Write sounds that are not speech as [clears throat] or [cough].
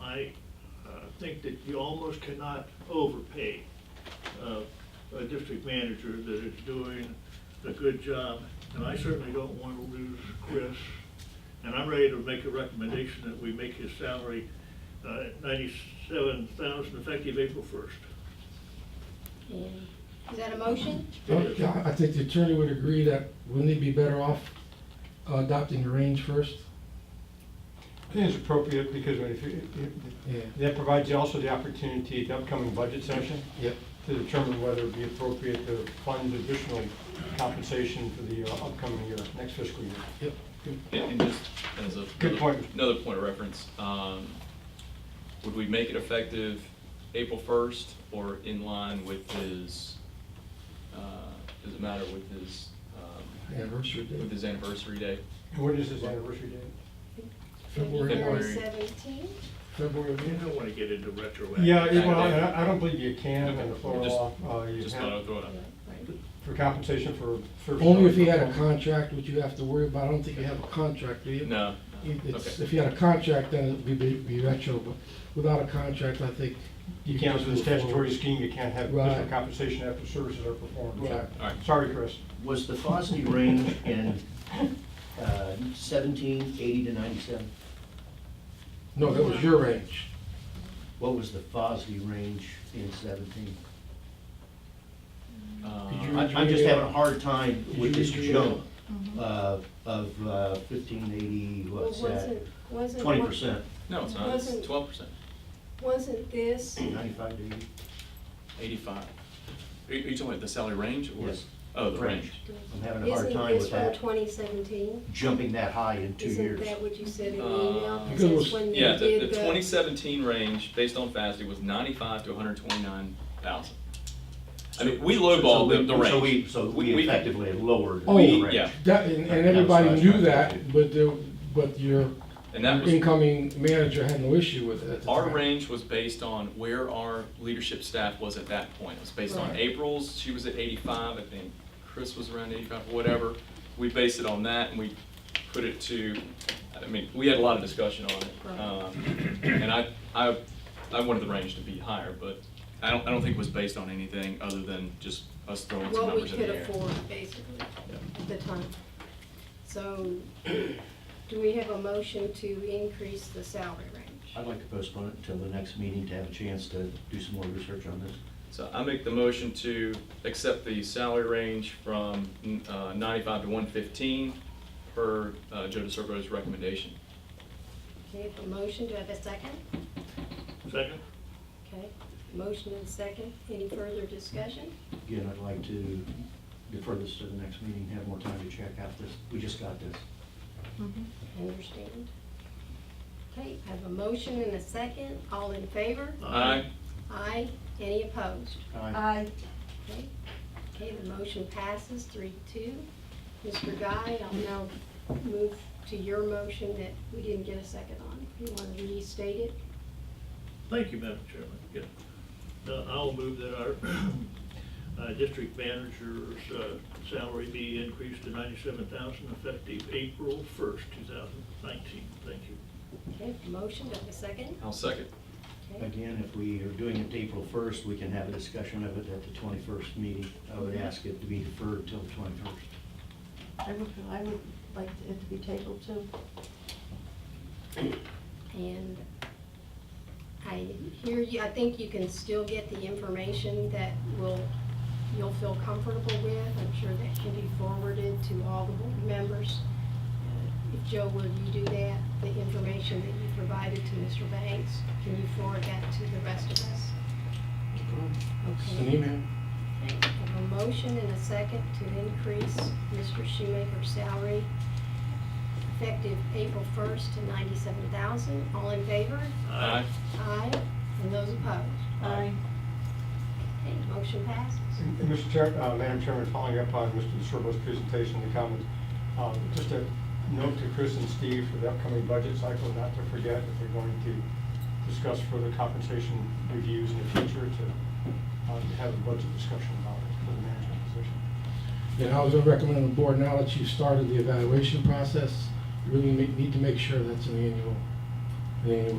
I uh, think that you almost cannot overpay uh, a district manager that is doing a good job. And I certainly don't want to lose Chris. And I'm ready to make a recommendation that we make his salary uh, at ninety-seven thousand effective April first. Is that a motion? Well, yeah, I think the attorney would agree that wouldn't it be better off uh, adopting the range first? I think it's appropriate because if you- if- Yeah. that provides you also the opportunity at the upcoming budget session Yep. to determine whether it'd be appropriate to fund additional compensation for the uh, upcoming year, next fiscal year. Yep. And and just as a. Good point. Another point of reference, um, would we make it effective April first or in line with his, uh, does it matter with his, um, Anniversary date. with his anniversary date? And what is his anniversary date? February. February. Seventeen? February of You the- don't want to get into retroactive. Yeah, it- well, I I don't believe you can under Florida Just- law. uh, you Just have- thought I'd throw it out. For compensation for services. Only if you had a contract, which you have to worry about, I don't think you have a contract, do you? No, You- no, it's- If okay. you had a contract, then it'd be- be, be retro, but without a contract, I think. You can't, under the could move statutory forward. scheme, you can't have Right. additional compensation after services are performed. Yeah. All right. Sorry, Chris. Was the Fosny range in uh, 17, 80 to 97? No, that was your range. What was the Fosny range in 17? Uh, Could you- I- I'm just having a hard time with this jump uh, of uh, 1580, Well, what's that? wasn't, wasn't. 20%, No, it's not, Wasn't- it's twelve percent, Wasn't this, 95 to 80? eighty-five. Are you, are you talking about the salary range or? Yes. Oh, the range. I'm having a hard isn't time this with from that, twenty seventeen? jumping that high in two Isn't years. that what you said in the Uh, email? Because it Since was- when they Yeah, the, did the twenty seventeen range, based on FASD, was ninety-five to hundred twenty-nine thousand. I mean, we So lowballed we- the, the range. So we, so we effectively have lowered the Oh, range. yeah. That, and, That and everybody was knew last that, time. but the, but your And that was, incoming manager had no issue with it at the our time. range was based on where our leadership staff was at that point. It was based on Right. April's, she was at eighty-five, I think Chris was around eighty-five, whatever. We based it on that and we put it to, I mean, we had a lot of discussion on it. Um, And I, I, I wanted the range to be higher, but I don't, I don't think it was based on anything other than just us throwing some What we numbers in the could air. afford, basically, at the time. So, do we have a motion to increase the salary range? I'd like to postpone it until the next meeting to have a chance to do some more research on this. So I make the motion to accept the salary range from uh, 95 to 115 per uh, Joe DeServo's recommendation. Okay, a motion, do I have a second? Second? Okay, motion and second, any further discussion? Again, I'd like to defer this to the next meeting, have more time to check out this. We just got this. Understand. Okay, I have a motion and a second, all in favor? Aye. Aye, any opposed? Aye. Aye. Okay, Okay. the motion passes three two. Mr. Guy, I'll now move to your motion that we didn't get a second on. You want to restate it? Thank you, Madam Chairman. Yeah. Uh, I'll move that our [clears throat] uh, district manager's uh, salary be increased to ninety-seven thousand effective April first, two thousand nineteen. Thank you. Okay, motion, do I have a second? I'll second. Okay, Again, if we are doing it April 1st, we can have a discussion of it at the 21st meeting. I would ask it to be deferred till the 21st. I would, I would like it to be tabled too. And I hear you, I think you can still get the information that will, you'll feel comfortable with. I'm sure that can be forwarded to all the board members. Uh, If Joe, will you do that? The information that you provided to Mr. Banks, can you forward that to the rest of us? It's an Okay. email. I have a motion and a second to increase Mr. Shoemaker's salary effective April 1st to 97,000. All in favor? Aye. Aye. And those opposed? Aye. Okay, motion passes. And- and Mr. Chair, uh, Madam Chairman, following up on Mr. DeSorbo's presentation and comments, um, just a note to Chris and Steve for the upcoming budget cycle, not to forget that they're going to discuss further compensation reviews in the future to uh, have a budget discussion about it for the management position. And I was gonna recommend the board, now that you've started the evaluation process, you really ma- need to make sure that's an annual, an annual